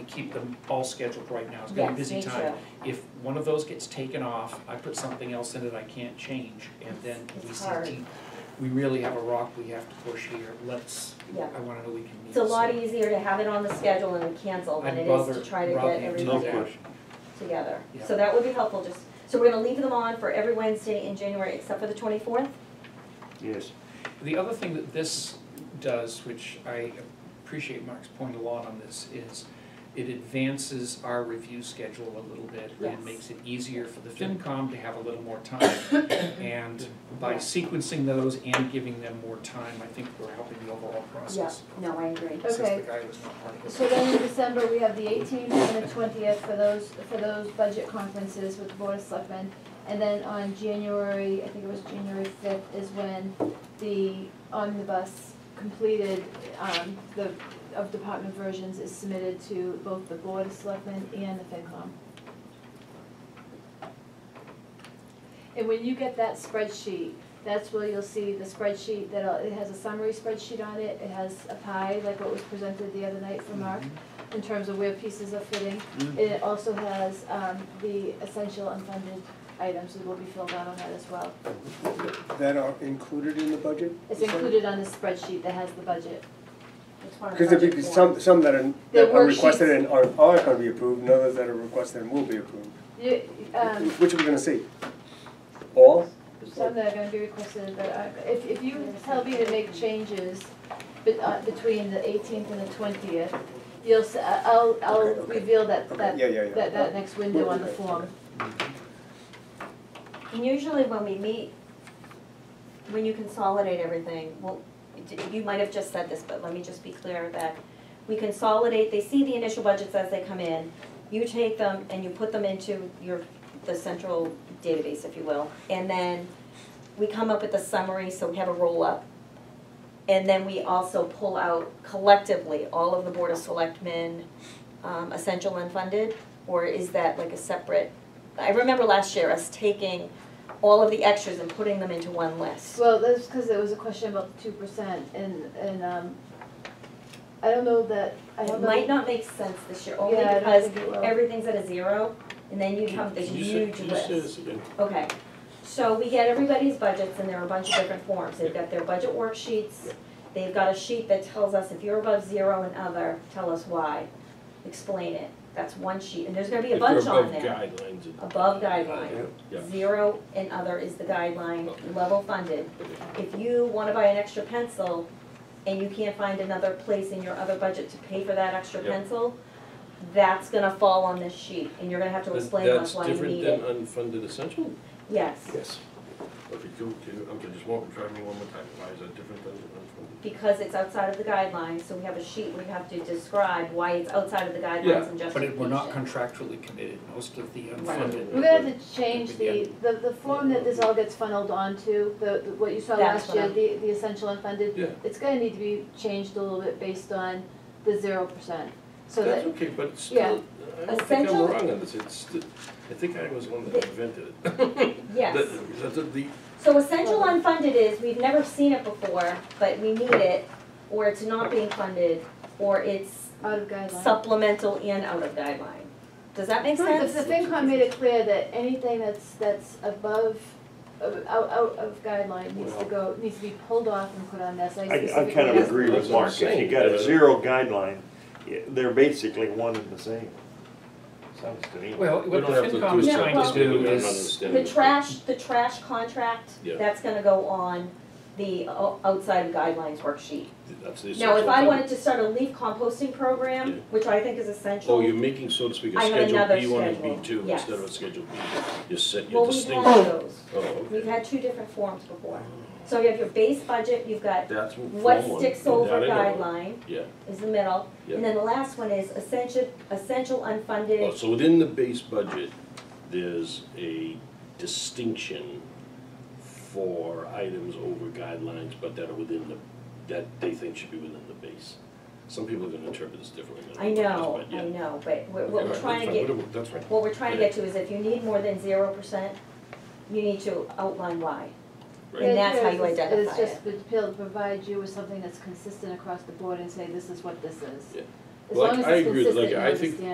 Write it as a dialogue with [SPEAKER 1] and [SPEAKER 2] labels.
[SPEAKER 1] keep them all scheduled right now, it's gonna be a busy time.
[SPEAKER 2] Yes, me
[SPEAKER 1] If one of those gets taken off, I put something else in it I can't change, and then we
[SPEAKER 2] It's
[SPEAKER 1] see,
[SPEAKER 2] hard.
[SPEAKER 1] deep- we really have a rock we have to push here, let's,
[SPEAKER 2] Yeah.
[SPEAKER 1] I wanna know we can meet.
[SPEAKER 2] too. It's a lot
[SPEAKER 1] so-
[SPEAKER 2] easier to have it on the schedule and cancel than
[SPEAKER 1] I'd
[SPEAKER 2] it is to
[SPEAKER 1] rather-
[SPEAKER 2] try to
[SPEAKER 1] rather
[SPEAKER 2] get
[SPEAKER 1] do
[SPEAKER 3] No
[SPEAKER 2] everything
[SPEAKER 1] that.
[SPEAKER 3] question.
[SPEAKER 2] together.
[SPEAKER 1] Yeah.
[SPEAKER 2] So that would be helpful, just, so we're gonna leave them on for every Wednesday in January except for the twenty-fourth?
[SPEAKER 3] Yes.
[SPEAKER 1] The other thing that this does, which I appreciate Mark's point a lot on this, is it advances our review schedule a little bit.
[SPEAKER 2] Yes.
[SPEAKER 1] And makes it easier for the FinCom to have a little more time. And by
[SPEAKER 2] Yeah.
[SPEAKER 1] sequencing those and giving them more time, I think we're helping the overall process.
[SPEAKER 2] No, I agree.
[SPEAKER 1] Since
[SPEAKER 4] Okay.
[SPEAKER 1] the guy was not part of it.
[SPEAKER 4] So then in December, we have the eighteenth and the twentieth for those, for those budget conferences with the Board of Selectmen. And then on January, I think it was January fifth, is when the omnibus completed, um, the, of department versions is submitted to both the Board of Selectmen and the FinCom. And when you get that spreadsheet, that's where you'll see the spreadsheet that'll, it has a summary spreadsheet on it, it has a pie, like what was presented the other night from Mark, in terms of where pieces are fitting.
[SPEAKER 1] Mm-hmm.
[SPEAKER 3] Mm.
[SPEAKER 4] It also has, um, the essential unfunded items that will be filled out on that as well.
[SPEAKER 5] that are included in the budget?
[SPEAKER 4] It's included on the spreadsheet that has the budget.
[SPEAKER 2] It's part of
[SPEAKER 5] Because there'd
[SPEAKER 2] budget
[SPEAKER 5] be
[SPEAKER 2] form.
[SPEAKER 5] some, some that are,
[SPEAKER 4] The
[SPEAKER 5] that are
[SPEAKER 4] worksheets.
[SPEAKER 5] requested and are, are gonna be approved, and others that are requested and will be approved.
[SPEAKER 4] You, um,
[SPEAKER 5] Which are we gonna see? All?
[SPEAKER 4] some that are gonna be requested, but I, if, if you tell me to make changes be- uh, between the eighteenth and the twentieth, you'll, s- I- I'll, I'll
[SPEAKER 5] Okay, okay.
[SPEAKER 4] reveal that,
[SPEAKER 5] Okay,
[SPEAKER 4] that,
[SPEAKER 5] yeah, yeah, yeah.
[SPEAKER 4] that, that next window on the
[SPEAKER 5] Okay,
[SPEAKER 4] form.
[SPEAKER 5] okay.
[SPEAKER 2] And usually when we meet, when you consolidate everything, well, d- you might have just said this, but let me just be clear that we consolidate, they see the initial budgets as they come in, you take them and you put them into your, the central database, if you will. And then we come up with a summary, so we have a roll-up. And then we also pull out collectively all of the Board of Selectmen, um, essential unfunded, or is that like a separate? I remember last year us taking all of the extras and putting them into one list.
[SPEAKER 4] Well, that's because there was a question about the two percent and, and, um, I don't know that, I
[SPEAKER 2] It
[SPEAKER 4] don't know.
[SPEAKER 2] might not make sense this year, only
[SPEAKER 4] Yeah, I don't
[SPEAKER 2] because
[SPEAKER 4] think it will.
[SPEAKER 2] everything's at a zero, and then you have this
[SPEAKER 6] Can you say-
[SPEAKER 2] huge
[SPEAKER 6] can you
[SPEAKER 2] list.
[SPEAKER 6] say this again?
[SPEAKER 2] Okay, so we get everybody's budgets and there are a bunch of different forms. They've got their budget worksheets. They've got a sheet that tells us if you're above zero and other, tell us why. Explain it. That's one sheet, and there's gonna be a
[SPEAKER 6] If they're
[SPEAKER 2] bunch on
[SPEAKER 6] above
[SPEAKER 2] there.
[SPEAKER 6] Guidelines. and-
[SPEAKER 2] Above guideline.
[SPEAKER 6] Yeah.
[SPEAKER 2] Zero and other is the guideline,
[SPEAKER 6] Okay.
[SPEAKER 2] level funded. If you wanna buy an extra pencil and you can't find another place in your other budget to pay for that extra
[SPEAKER 6] Yep.
[SPEAKER 2] pencil, that's gonna fall on this sheet and you're gonna have to
[SPEAKER 6] That's-
[SPEAKER 2] explain to us why you need it.
[SPEAKER 6] That's different than unfunded essential?
[SPEAKER 2] Yes,
[SPEAKER 6] Yes. Okay, can, can, okay, just walk and try me one more time, why is that different than unfunded?
[SPEAKER 2] because it's outside of the guidelines, so we have a sheet we have to describe why it's outside of the
[SPEAKER 6] Yeah,
[SPEAKER 2] guidelines and justification.
[SPEAKER 1] But it- we're not contractually committed, most of the unfunded.
[SPEAKER 4] We're gonna have to change the, the, the form that this all gets funneled onto, the, the- what you saw
[SPEAKER 2] That's
[SPEAKER 4] last
[SPEAKER 2] what
[SPEAKER 4] year,
[SPEAKER 2] I'm-
[SPEAKER 4] the, the essential unfunded.
[SPEAKER 6] Yeah.
[SPEAKER 4] It's gonna need to be changed a little bit based on the zero percent, so
[SPEAKER 6] That's
[SPEAKER 4] that,
[SPEAKER 6] okay, but it's still,
[SPEAKER 4] yeah.
[SPEAKER 6] I don't think I'm
[SPEAKER 2] Essential-
[SPEAKER 6] wrong on this, it's, sti- I think I was the one that
[SPEAKER 2] The-
[SPEAKER 6] invented it.
[SPEAKER 2] Yes.
[SPEAKER 6] The- the- the-
[SPEAKER 2] So essential unfunded is, we've never seen it before, but we need it, or it's not being funded, or it's
[SPEAKER 4] out of guidelines.
[SPEAKER 2] supplemental and out of guideline. Does that make
[SPEAKER 4] The
[SPEAKER 2] sense?
[SPEAKER 4] the FinCom made it clear that anything that's, that's above, uh, out, out of guideline needs to go, needs to be pulled off and put on this, I
[SPEAKER 3] I,
[SPEAKER 4] specifically.
[SPEAKER 3] I kind of agree
[SPEAKER 6] That's
[SPEAKER 3] with
[SPEAKER 6] what I'm
[SPEAKER 3] Mark, if you
[SPEAKER 6] saying. uh,
[SPEAKER 3] got a zero guideline, yeah, they're basically one and the same. Sounds to me.
[SPEAKER 1] Well,
[SPEAKER 6] We
[SPEAKER 1] what the
[SPEAKER 6] don't have to do
[SPEAKER 1] FinCom
[SPEAKER 6] is
[SPEAKER 1] is
[SPEAKER 2] No,
[SPEAKER 1] trying
[SPEAKER 2] well-
[SPEAKER 1] to
[SPEAKER 6] change it, we
[SPEAKER 1] do
[SPEAKER 6] don't
[SPEAKER 1] is,
[SPEAKER 6] understand.
[SPEAKER 2] The
[SPEAKER 6] it.
[SPEAKER 2] trash, the trash contract,
[SPEAKER 6] Yeah.
[SPEAKER 2] that's gonna go on the o- outside guidelines worksheet.
[SPEAKER 6] That's the
[SPEAKER 2] Now, if I
[SPEAKER 6] essential.
[SPEAKER 2] wanted to start a leaf composting
[SPEAKER 6] Yeah.
[SPEAKER 2] program, which I think is
[SPEAKER 6] Oh,
[SPEAKER 2] essential,
[SPEAKER 6] you're making, so to speak, a
[SPEAKER 2] I have another
[SPEAKER 6] Schedule B one and
[SPEAKER 2] schedule.
[SPEAKER 6] B two
[SPEAKER 2] Yes.
[SPEAKER 6] instead of a Schedule B. You're set,
[SPEAKER 2] well,
[SPEAKER 6] you're
[SPEAKER 2] we've
[SPEAKER 6] distinct.
[SPEAKER 2] had those.
[SPEAKER 6] Oh, okay.
[SPEAKER 2] We've had two different forms before. So you have your base budget, you've got
[SPEAKER 6] That's what.
[SPEAKER 2] what
[SPEAKER 6] form one,
[SPEAKER 2] sticks
[SPEAKER 6] that
[SPEAKER 2] over
[SPEAKER 6] I know of.
[SPEAKER 2] guideline
[SPEAKER 6] Yeah.
[SPEAKER 2] is the middle.
[SPEAKER 6] Yeah.
[SPEAKER 2] And then the last one is essential, essential
[SPEAKER 6] Oh,
[SPEAKER 2] unfunded,
[SPEAKER 6] so within the base budget, there's a distinction for items over guidelines, but that are within the, that they think should be within the base. Some people are gonna interpret this differently than
[SPEAKER 2] I
[SPEAKER 6] others,
[SPEAKER 2] know,
[SPEAKER 6] but yeah.
[SPEAKER 2] I know, but what what we're
[SPEAKER 6] Right,
[SPEAKER 2] trying to
[SPEAKER 6] that's
[SPEAKER 2] get,
[SPEAKER 6] fine, whatever, That's right.
[SPEAKER 2] what we're trying to
[SPEAKER 6] Yeah.
[SPEAKER 2] get to is if you need more than zero percent, you need to outline why.
[SPEAKER 6] Right.
[SPEAKER 2] And that's how you
[SPEAKER 4] The idea is-
[SPEAKER 2] identify
[SPEAKER 4] Is just to be able to provide you with something that's consistent across the board and say, this is what this is.
[SPEAKER 6] Yeah.
[SPEAKER 4] As long
[SPEAKER 6] Like,
[SPEAKER 4] as
[SPEAKER 6] I
[SPEAKER 4] it's
[SPEAKER 6] agree with
[SPEAKER 4] consistent, you
[SPEAKER 6] Lincoln. I think
[SPEAKER 4] understand